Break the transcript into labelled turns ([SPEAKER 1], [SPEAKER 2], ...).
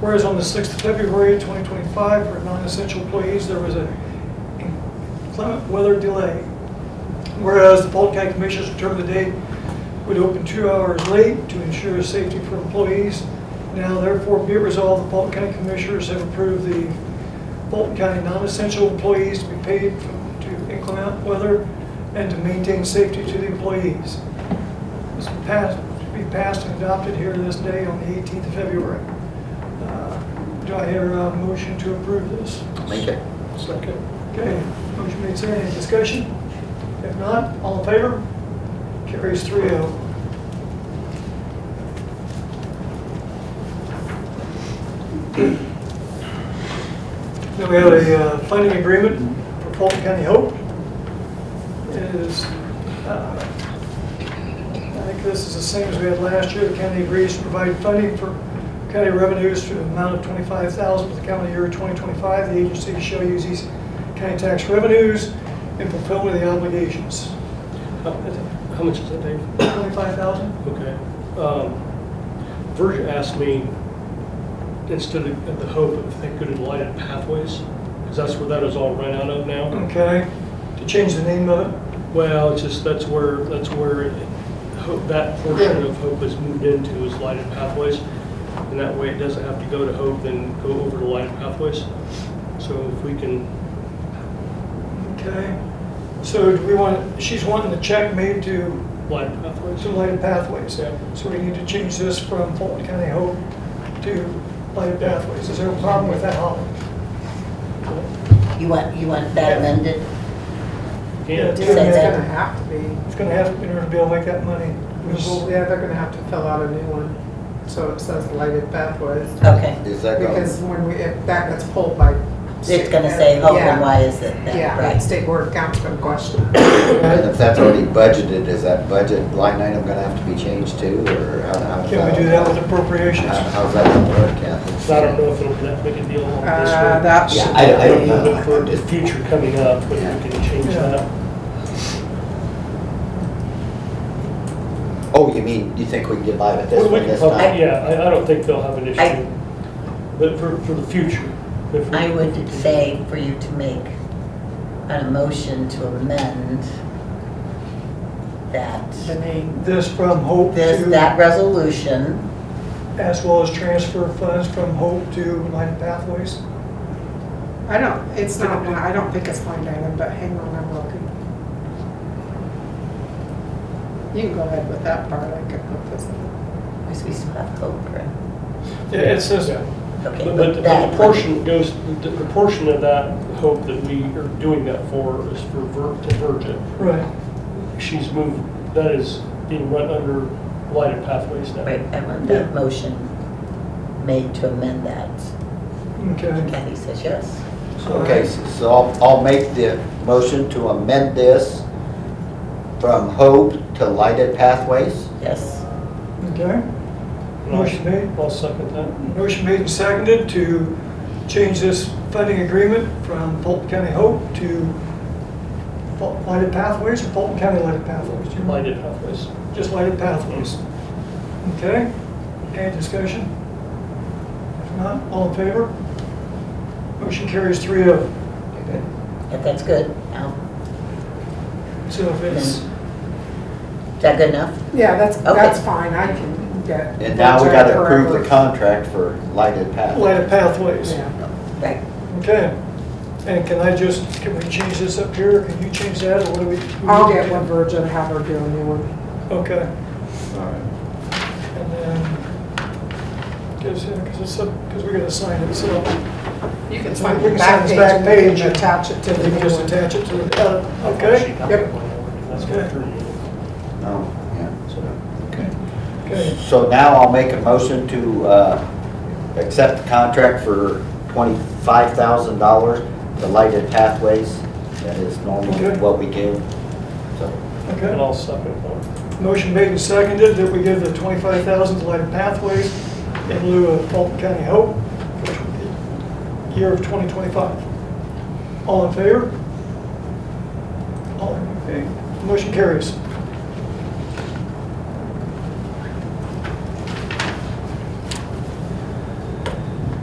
[SPEAKER 1] Whereas on the 6th of February 2025, for non-essential employees, there was a inclement weather delay. Whereas the Polk County Commissioners determined the day would open two hours late to ensure safety for employees. Now therefore be it resolved, the Polk County Commissioners have approved the Fulton County non-essential employees to be paid f- to inclement weather and to maintain safety to the employees. This will pass- be passed and adopted here this day on the 18th of February. Uh, Do I hear a motion to approve this?
[SPEAKER 2] Make it.
[SPEAKER 1] Second. Okay, motion made, second, any discussion? If not, all in favor? Carries oh. 3-0. Then we have a uh, funding agreement for Fulton County Hope. It is, uh, I think this is the same as we had last year. The county agrees to provide funding for county revenues to the amount of $25,000 for the calendar year 2025. The agency shall use these county tax revenues in fulfillment of the obligations.
[SPEAKER 3] How how much is that, Dave?
[SPEAKER 1] $25,000?
[SPEAKER 3] Okay. Um, Virgia asked me, instead of of the hope, if they could enlighten pathways, because that's where that is all run out of now.
[SPEAKER 4] Mm-hmm.
[SPEAKER 1] Okay, to change the name of it?
[SPEAKER 3] Well, it's just, that's where, that's where it- hope, that portion of hope is moved into is lighted pathways. And that way it doesn't have to go to hope and go over to lighted pathways. So if we can,
[SPEAKER 1] Okay, so do we want, she's wanting the check made to
[SPEAKER 3] lighted pathways.
[SPEAKER 1] to Lighted Pathways.
[SPEAKER 3] Yeah.
[SPEAKER 1] So we need to change this from Fulton County Hope to Lighted Pathways. Is there a problem with that, Holly?
[SPEAKER 2] You want, you want that amended?
[SPEAKER 1] Yeah.
[SPEAKER 3] Yeah.
[SPEAKER 4] It's
[SPEAKER 2] that-
[SPEAKER 4] gonna have to be.
[SPEAKER 1] It's gonna have, in order to be able to make that money.
[SPEAKER 4] Well, Yeah, they're gonna have to fill out a new one, so it says lighted pathways.
[SPEAKER 2] Okay.
[SPEAKER 5] Is that
[SPEAKER 4] Because
[SPEAKER 5] going,
[SPEAKER 4] when we, if that gets pulled by.
[SPEAKER 2] It's gonna say hope
[SPEAKER 4] Yeah.
[SPEAKER 2] and why is it that,
[SPEAKER 4] Yeah,
[SPEAKER 2] right?
[SPEAKER 4] state board of council gonna question it.
[SPEAKER 5] and if that's already budgeted, is that budget line item gonna have to be changed too, or how, how?
[SPEAKER 1] Can we do that with appropriations?
[SPEAKER 5] How- How's that gonna work, Kathy?
[SPEAKER 3] So I don't know if it'll be that big a deal on this one.
[SPEAKER 4] Uh, that
[SPEAKER 5] Yeah,
[SPEAKER 4] should
[SPEAKER 5] I don't- I don't
[SPEAKER 4] be-
[SPEAKER 5] know.
[SPEAKER 3] But For the future coming up, if we can change that.
[SPEAKER 5] Oh, you mean, you think we can get by with
[SPEAKER 3] We
[SPEAKER 5] this
[SPEAKER 3] we
[SPEAKER 5] one
[SPEAKER 3] can
[SPEAKER 5] this
[SPEAKER 3] probably,
[SPEAKER 5] time?
[SPEAKER 3] yeah, I, I don't think they'll have an
[SPEAKER 2] I-
[SPEAKER 3] issue. But for, for the future. if we-
[SPEAKER 2] I would say for you to make an motion to amend
[SPEAKER 4] The
[SPEAKER 2] that,
[SPEAKER 4] name,
[SPEAKER 1] This from Hope
[SPEAKER 2] this, that
[SPEAKER 1] to,
[SPEAKER 2] resolution,
[SPEAKER 1] as well as transfer funds from Hope to Lighted Pathways?
[SPEAKER 4] I don't, it's not, I don't think it's line item, but hang on, I'm looking. You can go ahead with that part, I can put this in.
[SPEAKER 2] because we still have hope, right?
[SPEAKER 1] Yeah, it says that.
[SPEAKER 2] Okay,
[SPEAKER 3] But,
[SPEAKER 2] but
[SPEAKER 3] but
[SPEAKER 2] that-
[SPEAKER 3] the portion goes, the the portion of that hope that we are doing that for is for Vir, to Virgin.
[SPEAKER 1] Right.
[SPEAKER 3] She's moved, that is being run under lighted pathways now.
[SPEAKER 2] Right, I want that motion made to amend that.
[SPEAKER 4] Mm-hmm.
[SPEAKER 1] Okay.
[SPEAKER 2] Kathy says yes.
[SPEAKER 5] Okay, so so I'll, I'll make the motion to amend this from hope to lighted pathways.
[SPEAKER 2] Yes.
[SPEAKER 1] Okay.
[SPEAKER 3] And I'll-
[SPEAKER 1] Motion made.
[SPEAKER 3] I'll second that.
[SPEAKER 1] Motion made and seconded to change this funding agreement from Fulton County Hope to Ful- Lighted Pathways or Fulton County Lighted Pathways? Do you remember?
[SPEAKER 3] Lighted pathways.
[SPEAKER 1] Just lighted pathways. Okay, any discussion? If not, all in favor? Motion carries oh. 3-0.
[SPEAKER 5] Okay.
[SPEAKER 2] If that's good, Al,
[SPEAKER 1] So if it's,
[SPEAKER 2] is that good enough?
[SPEAKER 4] Yeah, that's,
[SPEAKER 2] Okay.
[SPEAKER 4] that's fine, I can get.
[SPEAKER 5] And now we gotta approve the
[SPEAKER 4] contract.
[SPEAKER 5] contract for lighted
[SPEAKER 1] lighted pathways.
[SPEAKER 5] pathways.
[SPEAKER 2] Right.
[SPEAKER 1] Okay, and can I just, can we change this up here, can you change that, or what do we?
[SPEAKER 4] I'll get one virgin, have her do a new one.
[SPEAKER 1] Okay. And then, because, because it's, because we're gonna sign it, so
[SPEAKER 4] You can
[SPEAKER 1] sign
[SPEAKER 4] sign
[SPEAKER 1] the
[SPEAKER 4] the
[SPEAKER 1] back
[SPEAKER 4] back
[SPEAKER 1] page and
[SPEAKER 4] page
[SPEAKER 1] we
[SPEAKER 4] and
[SPEAKER 1] can
[SPEAKER 4] attach it to
[SPEAKER 1] we
[SPEAKER 4] the
[SPEAKER 1] can
[SPEAKER 4] new
[SPEAKER 1] just
[SPEAKER 4] one.
[SPEAKER 1] attach it to the, uh, okay?
[SPEAKER 4] Yep.
[SPEAKER 3] That's what threw me.
[SPEAKER 5] Oh, yeah.
[SPEAKER 3] So,
[SPEAKER 1] Okay,
[SPEAKER 5] So now I'll make a motion to uh, accept the contract for $25,000, the lighted pathways, that is normally what we give. So,
[SPEAKER 1] okay.
[SPEAKER 3] And I'll second that.
[SPEAKER 1] Motion made and seconded that we give the twenty-five thousand to Lighted Pathways in lieu of Fulton County Hope for the year of twenty twenty-five. All in favor? All in favor? Motion carries.